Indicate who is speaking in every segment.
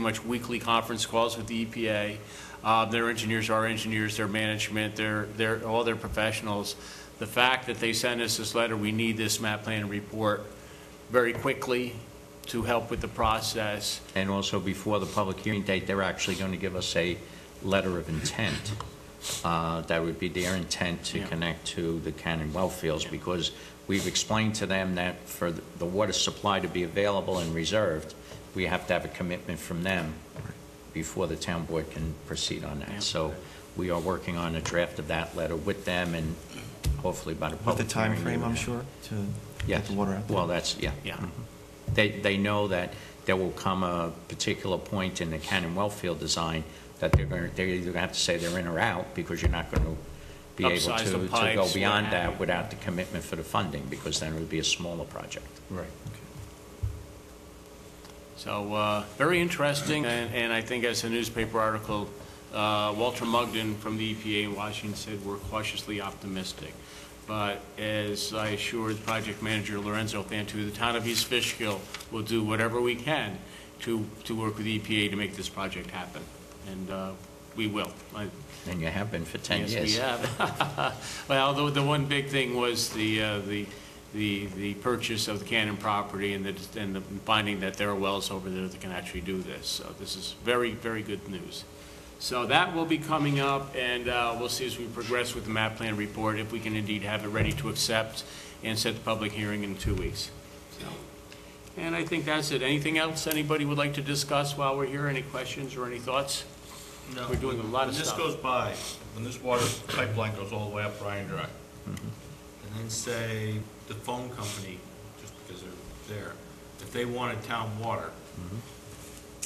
Speaker 1: much weekly conference calls with the EPA. Uh, Their engineers are engineers, their management, their, their, all their professionals. The fact that they sent us this letter, we need this map plan report very quickly to help with the process.
Speaker 2: And also, before the public hearing date, they're actually going to give us a letter of intent. Uh, That would be their intent to
Speaker 1: Yeah.
Speaker 2: connect to the Cannon well fields, because we've explained to them that for the the water supply to be available and reserved, we have to have a commitment from them before the town board can proceed on
Speaker 1: Yeah.
Speaker 2: that. So we are working on a draft of that letter with them, and hopefully by the
Speaker 3: With the
Speaker 2: public hearing.
Speaker 3: time
Speaker 2: we
Speaker 3: frame,
Speaker 2: would
Speaker 3: I'm
Speaker 2: have-
Speaker 3: sure, to
Speaker 2: Yes.
Speaker 3: get the water out there.
Speaker 2: Well, that's, yeah.
Speaker 1: Yeah.
Speaker 2: Mhm. They, they know that there will come a particular point in the Cannon Wellfield design that they're going, to they're either going to have to say they're in or out, because you're not going to be able
Speaker 1: Upsize the
Speaker 2: to, to
Speaker 1: pipes,
Speaker 2: go
Speaker 1: what
Speaker 2: beyond
Speaker 1: have you.
Speaker 2: that without the commitment for the funding, because then it would be a smaller project.
Speaker 4: Right.
Speaker 1: So, uh, very interesting, and, and I think as a newspaper article, uh, Walter Mugden from the EPA in Washington said, "We're cautiously optimistic." But as I assured Project Manager Lorenzo Fantu, the town of East Fishkill will do whatever we can to, to work with EPA to make this project happen, and uh, we will. I-
Speaker 2: And you have been for 10 years.
Speaker 1: Yes, we have. Well, the, the one big thing was the, uh, the, the the purchase of the Cannon property and the, and the finding that there are wells over there that can actually do this. So this is very, very good news. So that will be coming up, and uh, we'll see as we progress with the map plan report, if we can indeed have it ready to accept and set the public hearing in two weeks. So, And I think that's it. Anything else anybody would like to discuss while we're here? Any questions or any thoughts?
Speaker 5: No.
Speaker 1: We're doing a lot of
Speaker 5: When this
Speaker 1: stuff.
Speaker 5: goes by, when this water pipeline goes all the way up Ryan Drive, and then say the phone company, just because they're there, if they wanted town water,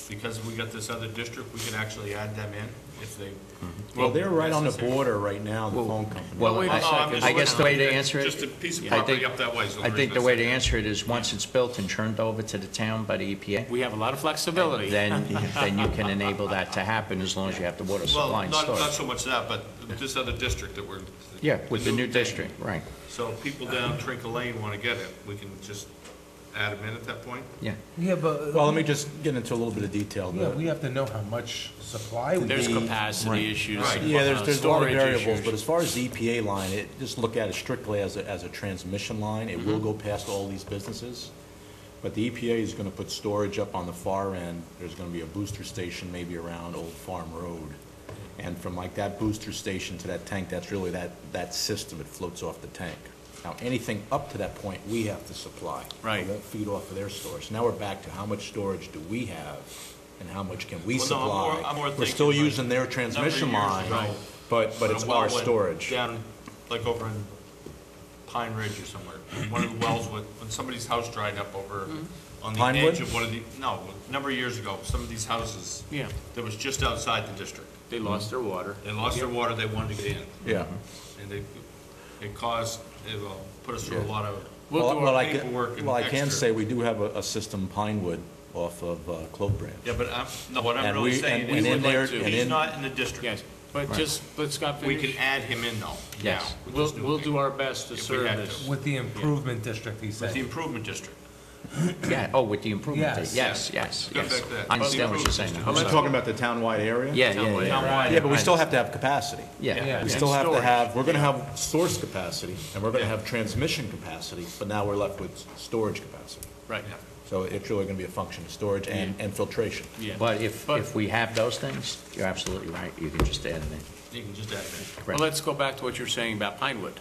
Speaker 5: because we got this other district, we can actually add them in if they.
Speaker 4: Well, they're right on the
Speaker 5: Necessary.
Speaker 4: border right now, the phone company.
Speaker 2: Well,
Speaker 1: wait a
Speaker 2: I-
Speaker 5: Oh, No, I'm just
Speaker 2: I guess the way to
Speaker 5: looking at
Speaker 2: answer it.
Speaker 5: Just a piece of
Speaker 2: I
Speaker 5: property
Speaker 2: think-
Speaker 5: up that way. so
Speaker 2: I
Speaker 5: there's
Speaker 2: think the
Speaker 5: no
Speaker 2: way
Speaker 5: sense.
Speaker 2: to answer it is, once it's built and turned over to the town by the EPA,
Speaker 1: We have a lot of flexibility.
Speaker 2: then, then you can enable that to happen, as long as you have the water
Speaker 5: Well,
Speaker 2: supply
Speaker 5: not,
Speaker 2: and storage.
Speaker 5: not so much that, but this other district that we're.
Speaker 2: Yeah, with the new
Speaker 5: thing.
Speaker 2: district, right,
Speaker 5: So if people down Trinket Lane want to get it, we can just add them in at that point?
Speaker 2: yeah.
Speaker 6: Yeah, but.
Speaker 4: Well, let me just get into a little bit of detail.
Speaker 6: Yeah,
Speaker 4: The-
Speaker 6: we have to know how much supply we
Speaker 1: There's
Speaker 6: need.
Speaker 1: capacity issues.
Speaker 5: Right.
Speaker 4: Yeah, there's,
Speaker 1: uh,
Speaker 4: there's a lot of
Speaker 1: storage
Speaker 4: variables, but
Speaker 1: issues.
Speaker 4: as far as the EPA line, it, just look at it strictly as a, as a transmission line. It will go past all these businesses. But the EPA is gonna put storage up on the far end. There's gonna be a booster station maybe around Old Farm Road. And from like that booster station to that tank, that's really that, that system, it floats off the tank. Now, anything up to that point, we have to supply.
Speaker 1: Right.
Speaker 4: It won't feed off of their storage. Now we're back to how much storage do we have and how much can we
Speaker 5: Well, no, I'm more-
Speaker 4: supply?
Speaker 5: I'm more
Speaker 4: We're
Speaker 5: thinking
Speaker 4: still
Speaker 5: like-
Speaker 4: using their trans
Speaker 5: number of
Speaker 4: transmission
Speaker 5: years
Speaker 4: line,
Speaker 5: ago,
Speaker 4: but, but
Speaker 5: when a
Speaker 4: it's
Speaker 5: well
Speaker 4: our
Speaker 5: went
Speaker 4: storage.
Speaker 5: Down, like over in Pine Ridge or somewhere, one of the wells with, when somebody's house dried up over on the
Speaker 4: Pinewood?
Speaker 5: edge of one of the, no, a number of years ago, some of these houses.
Speaker 1: Yeah.
Speaker 5: That was just outside the district.
Speaker 1: They lost their water.
Speaker 5: They lost their water, they wanted to get in,
Speaker 4: Yeah.
Speaker 5: and they, it caused, it uh, put us through a
Speaker 4: Yeah.
Speaker 5: lot of.
Speaker 1: We'll
Speaker 4: Well,
Speaker 1: do
Speaker 4: well,
Speaker 1: our
Speaker 4: I can,
Speaker 5: paperwork and
Speaker 4: well, I can
Speaker 5: extra.
Speaker 4: say we do have a, a system Pinewood off of uh, Clove Branch.
Speaker 5: Yeah, but I'm, no, what I'm
Speaker 4: And
Speaker 5: really
Speaker 4: we-
Speaker 5: saying
Speaker 4: and-
Speaker 5: is,
Speaker 4: and in there-
Speaker 1: and
Speaker 5: he's
Speaker 4: in-
Speaker 5: not in the district.
Speaker 1: Yes, but just, let's stop
Speaker 5: We can
Speaker 1: finish.
Speaker 5: add him in though.
Speaker 2: Yes.
Speaker 5: now, with
Speaker 1: We'll,
Speaker 5: this new
Speaker 1: we'll
Speaker 5: thing.
Speaker 1: do our best to
Speaker 5: If we
Speaker 1: serve
Speaker 5: had
Speaker 1: this.
Speaker 6: With the improvement district, he
Speaker 5: With the
Speaker 6: said.
Speaker 5: improvement district.
Speaker 2: Yeah, oh, with the improvement, date. yes,
Speaker 5: Yes.
Speaker 2: yes,
Speaker 5: Go
Speaker 2: yes.
Speaker 5: back to that.
Speaker 2: I understand what you're
Speaker 5: Improvement
Speaker 2: saying. now.
Speaker 5: district.
Speaker 4: I'm talking about the townwide area?
Speaker 2: Yeah, yeah,
Speaker 5: Townwide.
Speaker 2: yeah.
Speaker 4: Yeah, but we still have to have capacity.
Speaker 2: Yeah,
Speaker 6: Yeah.
Speaker 4: We still have to
Speaker 1: storage.
Speaker 4: have, we're gonna have source capacity, and we're gonna have transmission capacity, but now we're left with s- storage capacity.
Speaker 1: Right,
Speaker 5: Yeah.
Speaker 4: So it's really gonna be a function of storage and, and filtration.
Speaker 1: yeah.
Speaker 2: but if,
Speaker 1: But-
Speaker 2: if we have those things, you're absolutely right, you can just add them in.
Speaker 5: You can just add him in.
Speaker 1: Well,
Speaker 2: Correct.
Speaker 1: let's go back to what you were saying about Pinewood.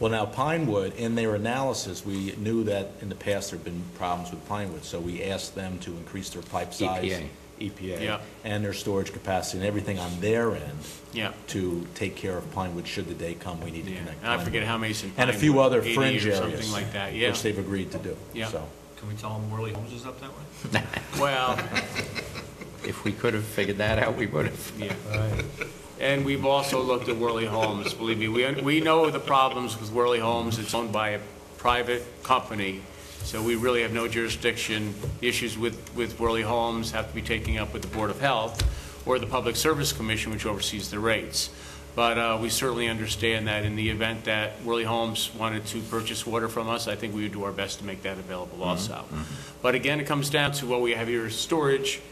Speaker 4: Well, now Pinewood, in their analysis, we knew that in the past there've been problems with Pinewood, so we asked them to increase their pipe size.
Speaker 2: EPA.
Speaker 4: EPA.
Speaker 1: E Yeah.
Speaker 4: And their storage capacity and everything on their end
Speaker 1: Yeah,
Speaker 4: to take care of Pinewood should the day come we need to
Speaker 1: yeah.
Speaker 4: connect.
Speaker 1: And I forget
Speaker 4: Pinewood.
Speaker 1: how many's in Pinewood.
Speaker 4: And a few other
Speaker 1: 80
Speaker 4: fringe
Speaker 1: or
Speaker 4: areas.
Speaker 1: Something like that, yeah.
Speaker 4: Which they've agreed to do.
Speaker 1: Yeah.
Speaker 4: So,
Speaker 5: Can we tell them Worley Homes is up that way?
Speaker 1: Well,
Speaker 2: If we could have figured that out, we would have.
Speaker 1: yeah.
Speaker 6: Right.
Speaker 1: And we've also looked at Worley Homes, believe me. We, we know the problems with Worley Homes. It's owned by a private company, so we really have no jurisdiction. Issues with, with Worley Homes have to be taken up with the Board of Health or the Public Service Commission, which oversees the rates. But uh, we certainly understand that in the event that Worley Homes wanted to purchase water from us, I think we would do our best to make that available also. But again, it comes down to what we have here is storage